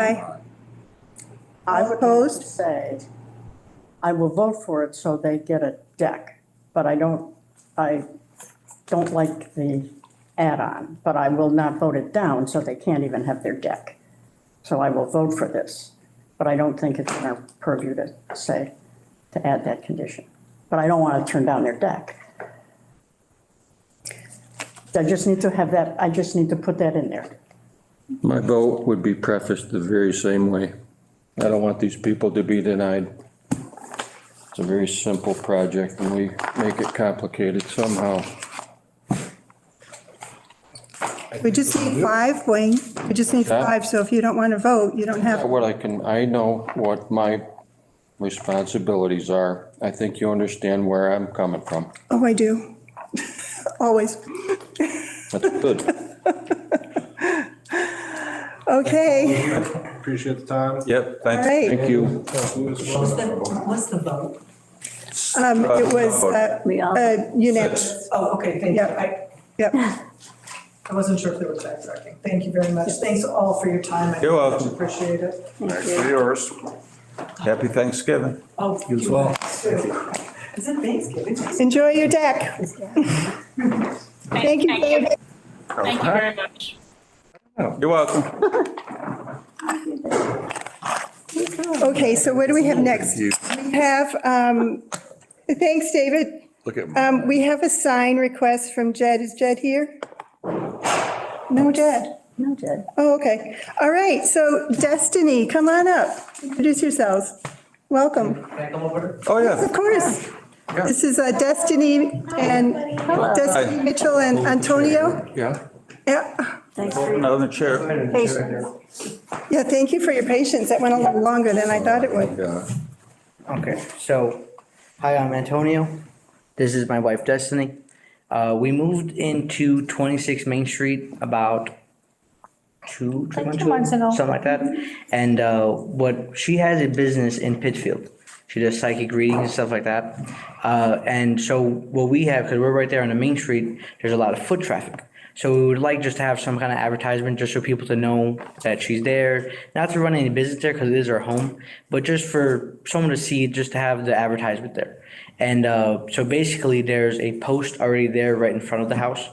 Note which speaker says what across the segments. Speaker 1: Aye.
Speaker 2: I would like to
Speaker 1: Opposed?
Speaker 2: say, I will vote for it so they get a deck, but I don't, I don't like the add-on, but I will not vote it down so they can't even have their deck. So I will vote for this, but I don't think it's in our purview to say, to add that condition. But I don't want to turn down their deck. I just need to have that, I just need to put that in there.
Speaker 3: My vote would be prefaced the very same way. I don't want these people to be denied. It's a very simple project and we make it complicated somehow.
Speaker 1: We just need five, Wayne. We just need
Speaker 3: Huh?
Speaker 1: five, so if you don't want to vote, you don't have,
Speaker 3: What I can, I know what my responsibilities are. I think you understand where I'm coming from.
Speaker 1: oh, I do. Always.
Speaker 3: That's good.
Speaker 1: Okay,
Speaker 4: Appreciate the time.
Speaker 5: Yep,
Speaker 1: all
Speaker 5: thanks.
Speaker 1: right.
Speaker 3: Thank you.
Speaker 6: What's the, what's the vote?
Speaker 1: Um, It was uh,
Speaker 2: We all-
Speaker 1: uh, unanimous.
Speaker 6: Oh, okay, thank you.
Speaker 1: Yep.
Speaker 6: I,
Speaker 1: Yep.
Speaker 6: I wasn't sure if there was backtracking. Thank you very much. Thanks all for your time. I
Speaker 5: You're welcome.
Speaker 6: much Appreciate it.
Speaker 2: Thank
Speaker 4: Thanks
Speaker 2: you.
Speaker 4: for yours.
Speaker 5: Happy Thanksgiving.
Speaker 6: Oh, you as well. Is it Thanksgiving?
Speaker 1: Enjoy your deck. Thank you, David.
Speaker 7: Thank you very much.
Speaker 5: You're welcome.
Speaker 1: Okay, so what do we have next? We have, um, thanks, David.
Speaker 4: Look at,
Speaker 1: Um, We have a sign request from Jed. Is Jed here? No, Jed.
Speaker 2: No, Jed.
Speaker 1: Oh, okay. All right, so Destiny, come on up. Introduce yourselves. Welcome.
Speaker 5: Oh, yeah.
Speaker 1: Of course. This is uh, Destiny and Destiny
Speaker 5: Hi.
Speaker 1: Mitchell and Antonio.
Speaker 4: yeah.
Speaker 1: Yeah,
Speaker 2: Thanks for your
Speaker 5: Another chair.
Speaker 1: yeah, thank you for your patience. That went a little longer than I thought it would.
Speaker 8: Okay, so, hi, I'm Antonio. This is my wife Destiny. Uh, we moved into twenty-six Main Street about two, two
Speaker 9: Like
Speaker 8: months
Speaker 9: two
Speaker 8: ago.
Speaker 9: months ago.
Speaker 8: Something like that. And, uh, what, she has a business in Pittsfield. She does psychic readings and stuff like that. Uh, and so what we have, cause we're right there on the Main Street, there's a lot of foot traffic. So we would like just to have some kind of advertisement, just for people to know that she's there, not to run any business there, cause it is her home, but just for someone to see, just to have the advertisement there. And, uh, so basically there's a post already there right in front of the house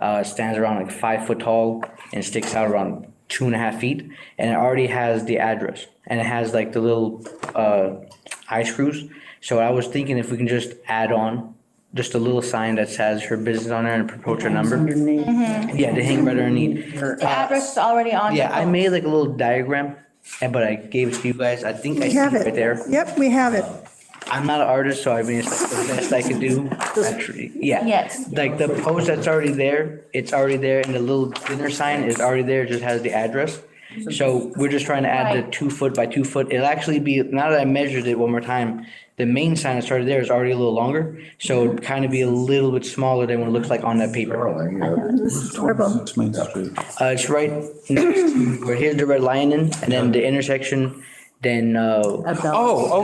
Speaker 8: uh, stands around like five foot tall and sticks out around two and a half feet. And it already has the address and it has like the little uh, eye screws. So I was thinking if we can just add on just a little sign that says her business on there and approach her number. Mm-hmm.
Speaker 2: name.
Speaker 8: Yeah, to hang right underneath.
Speaker 9: The address is already on.
Speaker 8: Yeah, I made like a little diagram, and but I gave it to you guys. I think I
Speaker 1: We
Speaker 8: see it
Speaker 1: have
Speaker 8: right
Speaker 1: it.
Speaker 8: there.
Speaker 1: Yep, we have it.
Speaker 8: I'm not an artist, so I mean, it's the best I could do, actually, yeah.
Speaker 9: Yes.
Speaker 8: Like the post that's already there, it's already there, and the little dinner sign is already there, it just has the address. So we're just trying to add the
Speaker 9: Right.
Speaker 8: two foot by two foot, it'll actually be, now that I measured it one more time, the main sign that started there is already a little longer, so it'd kind of be a little bit smaller than what it looks like on that paper.
Speaker 1: Adorable.
Speaker 5: Main Street.
Speaker 8: Uh, it's right next to, where here's the red lion in, and then the intersection, then, uh,
Speaker 5: Oh,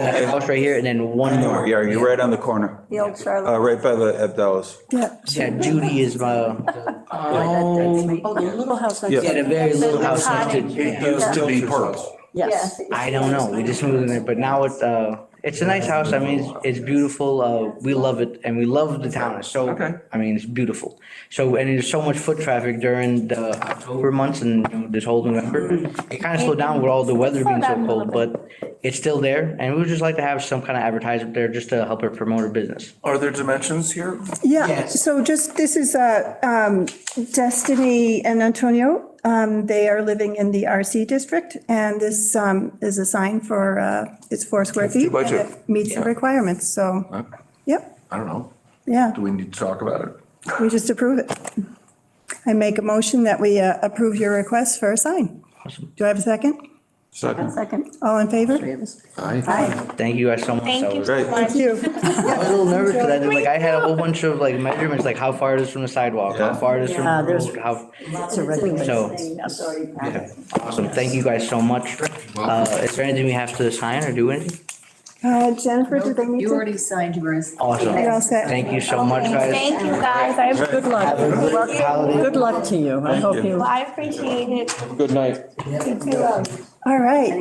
Speaker 8: that
Speaker 5: okay.
Speaker 8: house right here, and then one more.
Speaker 5: Yeah, you're right on the corner,
Speaker 2: The old Charlotte.
Speaker 5: uh, right by the Abdellah's.
Speaker 1: Yeah.
Speaker 8: Yeah, Judy is uh, my.
Speaker 2: Oh, the little house next
Speaker 5: Yeah.
Speaker 2: to
Speaker 8: Yeah, the very little house next to-
Speaker 9: Cottage.
Speaker 5: still be purple.
Speaker 2: Yes.
Speaker 8: I don't know, we just moved in there, but now it's, uh, it's a nice house, I mean, it's, it's beautiful, uh, we love it, and we love the town, it's so,
Speaker 5: Okay.
Speaker 8: I mean, it's beautiful. So, and there's so much foot traffic during the October months and, you know, this whole November. It kind of slowed down with all the weather being
Speaker 9: Slow
Speaker 8: so
Speaker 9: down a
Speaker 8: cold,
Speaker 9: little
Speaker 8: but it's still there, and we would just like to have some kind of advertisement there just to help her promote her business.
Speaker 4: Are there dimensions here?
Speaker 1: Yeah,
Speaker 8: Yes.
Speaker 1: so just, this is uh, um, Destiny and Antonio. Um, They are living in the RC district, and this um, is a sign for, uh, it's four square feet. and
Speaker 4: budget.
Speaker 1: it Meets the requirements, so, yep,
Speaker 4: I don't know.
Speaker 1: yeah,
Speaker 4: Do we need to talk about it?
Speaker 1: we just approve it. I make a motion that we uh, approve your request for a sign. Do I have a second?
Speaker 2: One
Speaker 5: Second.
Speaker 2: second.
Speaker 1: All in favor?
Speaker 2: Three of us.
Speaker 4: Aye.
Speaker 2: Hi.
Speaker 8: Thank you guys so much.
Speaker 7: Thank
Speaker 8: That
Speaker 7: you
Speaker 8: was-
Speaker 7: so
Speaker 5: Great.
Speaker 7: much.
Speaker 1: You.
Speaker 8: I was a little nervous because I did, like, I had a whole bunch of like measurements, like how far it is from the sidewalk, how
Speaker 5: Yeah.
Speaker 8: far it is from
Speaker 2: Yeah,
Speaker 8: the
Speaker 2: there's-
Speaker 8: road, how.
Speaker 2: Lots of regulations.
Speaker 8: So-
Speaker 2: That's already passed.
Speaker 8: Awesome, thank you guys so much. Uh, is there anything we have to sign or do anything?
Speaker 1: Uh, Jennifer, do they need
Speaker 2: You
Speaker 1: to?
Speaker 2: already signed yours.
Speaker 1: You're all
Speaker 8: Awesome,
Speaker 1: set.
Speaker 8: thank you so much, guys.
Speaker 7: Thank you, guys. I,
Speaker 5: Right.
Speaker 2: Good luck. Good luck.
Speaker 8: Holiday.
Speaker 2: Good luck to you. I
Speaker 5: Thank
Speaker 2: hope
Speaker 5: you.
Speaker 2: you.
Speaker 7: I appreciate it.
Speaker 3: Good night.
Speaker 1: All right.